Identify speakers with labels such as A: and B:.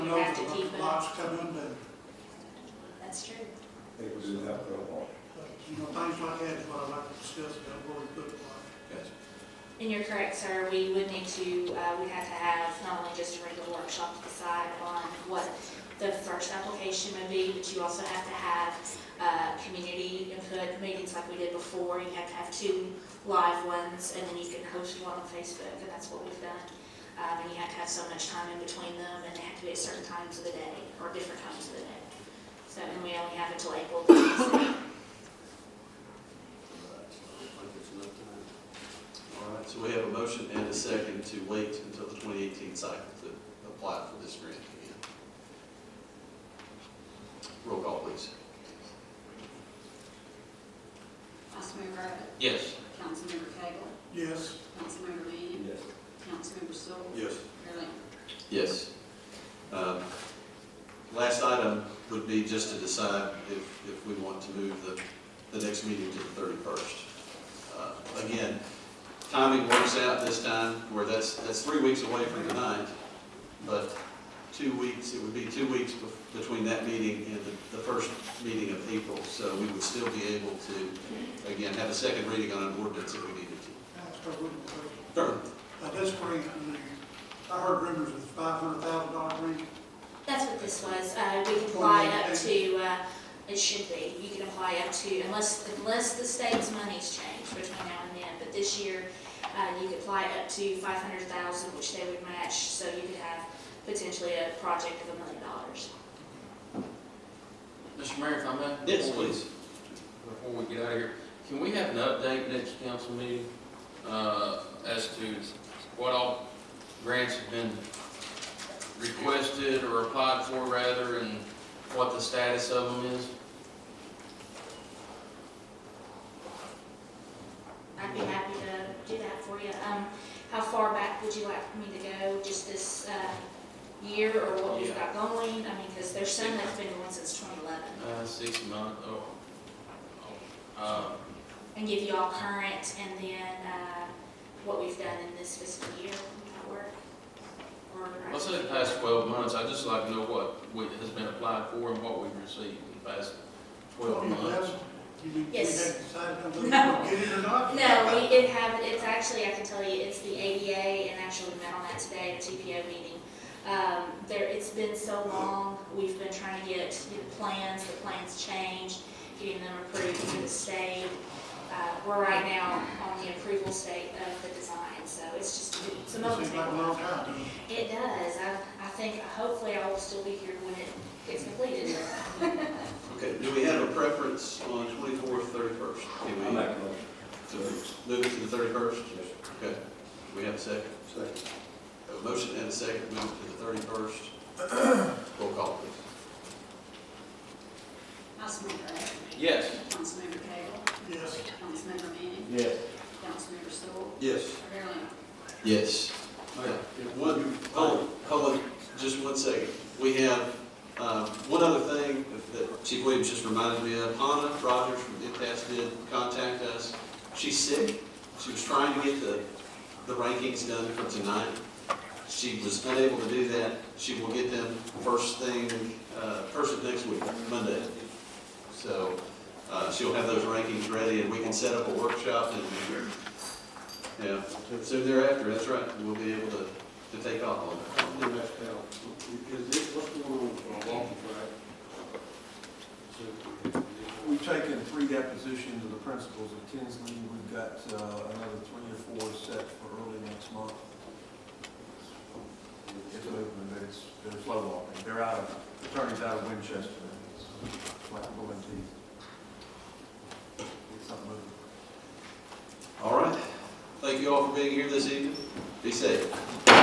A: think we just have to go on.
B: But, You know, things like that is what I like to discuss about what we put on.
A: Yes.
C: And you're correct, sir, we would need to, uh, we have to have not only just a regular workshop to decide on what the first application would be, but you also have to have, uh, community input meetings like we did before. You have to have two live ones, and then you can host one on Facebook, and that's what we've done. Um, and you have to have so much time in between them, and they have to be at certain times of the day, or different times of the day. So, and we only have until April.
D: All right, so we have a motion and a second to wait until the 2018 cycle to apply for this grant again. Roll call, please.
E: Councilmember Rabbit?
D: Yes.
E: Councilmember Cagle?
B: Yes,
E: Councilmember Manning?
A: Yes.
E: Councilmember Stoll?
A: Yes.
E: Mayor Lambert?
D: Yes. Um, Last item would be just to decide if, if we want to move the, the next meeting to the thirty-first. Uh, Again, timing works out this time, where that's, that's three weeks away from tonight, but two weeks, it would be two weeks bef- between that meeting and the, the first meeting of April, so we would still be able to, again, have a second reading on an ordinance if we needed to.
B: that's a good question.
D: Sure.
B: Now, that's where, I mean, I heard rumors of five hundred thousand dollar ring.
C: That's what this was, uh, we can apply up to, uh, it should be, you can apply up to, unless, unless the state's money's changed between now and then, but this year, uh, you could apply up to five hundred thousand, which they would match, so you could have potentially a project of a million dollars.
F: Mr. Mayor, if I may?
D: Yes,
F: before we-
D: please.
F: Before we get out of here, can we have an update next council meeting, uh, as to what all grants have been requested or applied for rather, and what the status of them is?
C: I'd be happy to do that for you. Um, how far back would you like me to go, just this, uh, year, or what we've got going? I mean, because there's some that's been going since twenty eleven.
F: Uh, six month, oh, oh, uh,
C: and give you all current and then uh, what we've done in this fiscal year at work. Or-
F: let's say the past twelve months, I'd just like to know what we- has been applied for and what we've received in the past twelve months.
B: You mean, we had
C: Yes.
B: decided on whether we gonna get it or not?
C: No, we did have, it's actually, I can tell you, it's the ADA and actually we met on that today at a TPO meeting. Um, There, it's been so long, we've been trying to get the plans, the plans changed, getting them approved through the state. Uh, We're right now on the approval state of the design, so it's just, it's a moment.
B: Seems like a long time. doesn't it?
C: It does. I, I think, hopefully I will still be here when it gets completed.
D: Okay, do we have a preference on twenty-fourth, thirty-first?
A: I make a motion.
D: Move it to the thirty-first?
A: Yes.
D: Okay, Do we have a second.
A: Second.
D: A motion and a second, move it to the thirty-first. Roll call, please.
E: Councilmember Rabbit?
F: Yes.
E: Councilmember Cagle?
B: Yes.
E: Councilmember Manning?
A: Yes.
E: Councilmember Stoll?
D: Yes.
E: Mayor Lambert?
D: Yes. Okay, One, hold, hold on, just one second. We have, um, one other thing that Chief Williams just reminded me of. Anna Rogers from IPAS did contact us. She's sick. She was trying to get the, the rankings done for tonight. She was unable to do that. She will get them first thing, uh, first of next week, Monday. So, uh, she'll have those rankings ready and we can set up a workshop and, yeah, soon thereafter, that's right, we'll be able to, to take off on that.
G: Let me ask Al, is this, what's going on with our walking track? We've taken three depositions of the principals of Tinsley, we've got uh, another three or four set for early next month. It's moving, but it's, they're slow walking, they're out, of attorney's out of Winchester, it's like going to, it's not moving.
D: All right. Thank you all for being here this evening. Be safe.